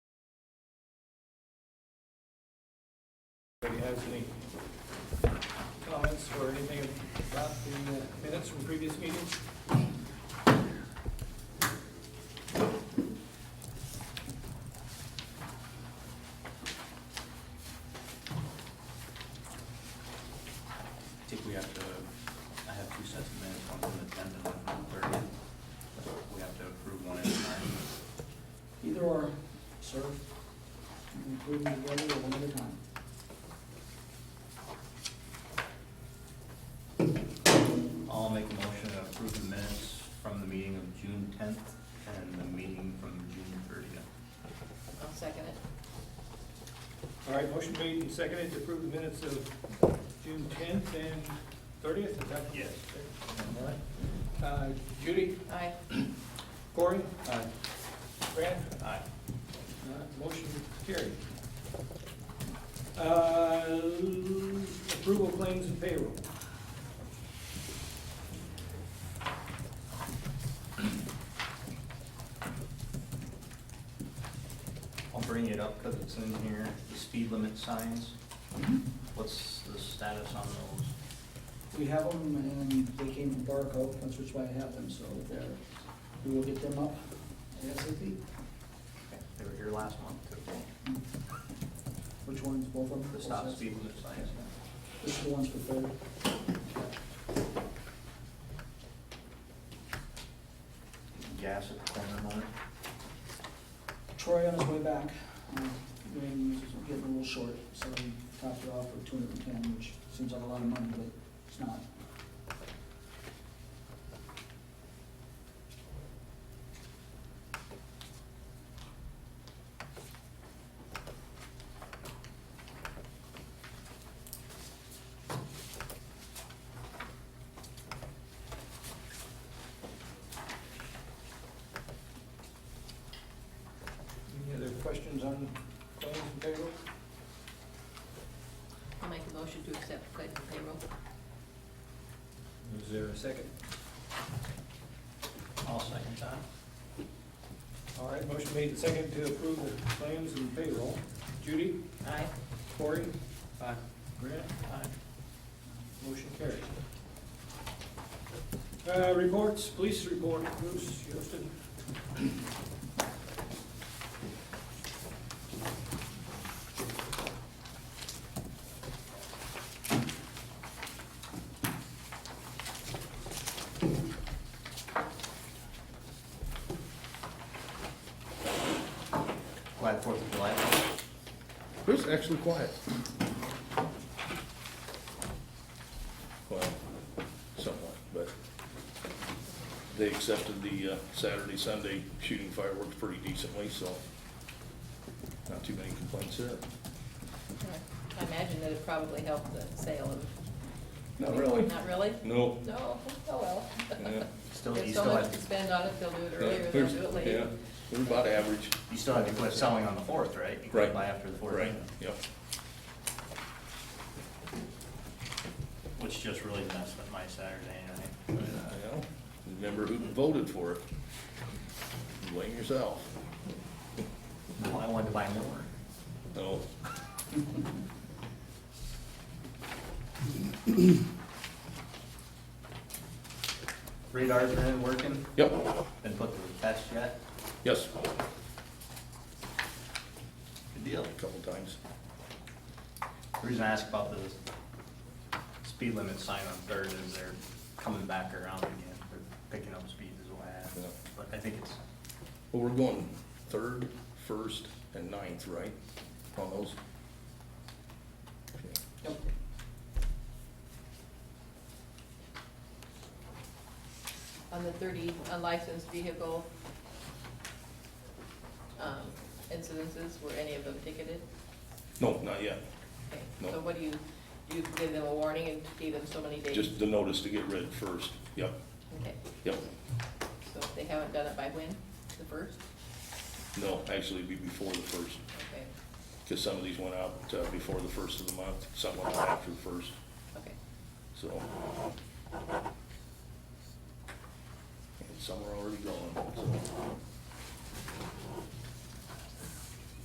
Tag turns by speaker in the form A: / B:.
A: Anybody has any comments or anything about the uh, minutes from previous meetings?
B: I think we have to, I have two sets of minutes, one from the tenth and one from the thirtieth. We have to approve one at a time.
C: Either or, sir. You can Include them together or one at a time.
B: I'll make a motion to approve the minutes from the meeting of June tenth and the meeting from June thirtieth.
D: I'll second it.
A: All right, motion made and seconded to approve the minutes of June tenth and thirtieth, is that?
B: Yes.
A: All right. Uh, Judy,
D: Aye.
A: Corey,
B: Aye.
A: Brad,
B: Aye.
A: uh, motion carried. Uh, Approval of claims and payroll.
B: I'll bring it up because it's in here, the speed limit signs. Mm-hmm. What's the status on those?
C: We have them and they came from Barco, that's which why I have them, so they're, we will get them up ASAP.
B: They were here last month, too.
C: Which ones, both of them?
B: the stop speed limit signs.
C: Which the ones for third?
B: Gas at the corner moment.
C: Troy on his way back, um, Wayne was getting a little short, so he topped it off with two hundred and ten, which seems like a lot of money, but it's not.
A: Any other questions on claims and payroll?
D: I'll make a motion to accept claims and payroll.
A: Is there a second?
B: I'll second that.
A: All right, motion made and seconded to approve the claims and payroll. Judy,
D: Aye.
A: Corey,
B: Aye.
A: Grant,
B: Aye.
A: Motion carried. Uh, reports, police report, Bruce, Houston.
B: Glad Fourth of July.
E: Bruce actually quiet.
F: Well, somewhat, but they accepted the uh, Saturday, Sunday shooting fireworks pretty decently, so not too many complaints there.
D: I imagine that it probably helped the sale of.
F: Not really.
D: Not really?
F: No.
D: No, oh well.
F: yeah.
B: Still,
D: There's
B: you
D: so
B: still
D: much to
B: had,
D: spend on it, they'll do it earlier, they'll
F: There's-
D: do it
F: Yeah,
D: later.
F: they're about average.
B: you still had to quit selling on the fourth, right? You couldn't
F: Right.
B: Buy after the fourth.
F: Right, yep.
B: Which just really messed up my Saturday night.
F: I know. Remember who voted for it. Blame yourself.
B: Well, I wanted to buy more.
F: No.
B: Radars are in working,
F: Yep,
B: been put to the test yet.
F: yes,
B: Good deal.
F: a couple times.
B: The reason I ask about the speed limit sign on Third is they're coming back around again. They're picking up speed is what I asked.
F: Yeah.
B: But I think it's,
F: Well, we're going third, first, and ninth, right, on those?
C: Yep.
D: On the thirty unlicensed vehicle um, incidences, were any of them ticketed?
F: No, not yet,
D: Okay.
F: No.
D: So what do you, do you give them a warning and give them so many days?
F: just the notice to get rid first, yep,
D: Okay,
F: yep,
D: so if they haven't done it by when? The first?
F: no, actually, it'd be before the first,
D: Okay,
F: because some of these went out uh, before the first of the month, some went out after the first,
D: okay.
F: so. And some are already gone, so.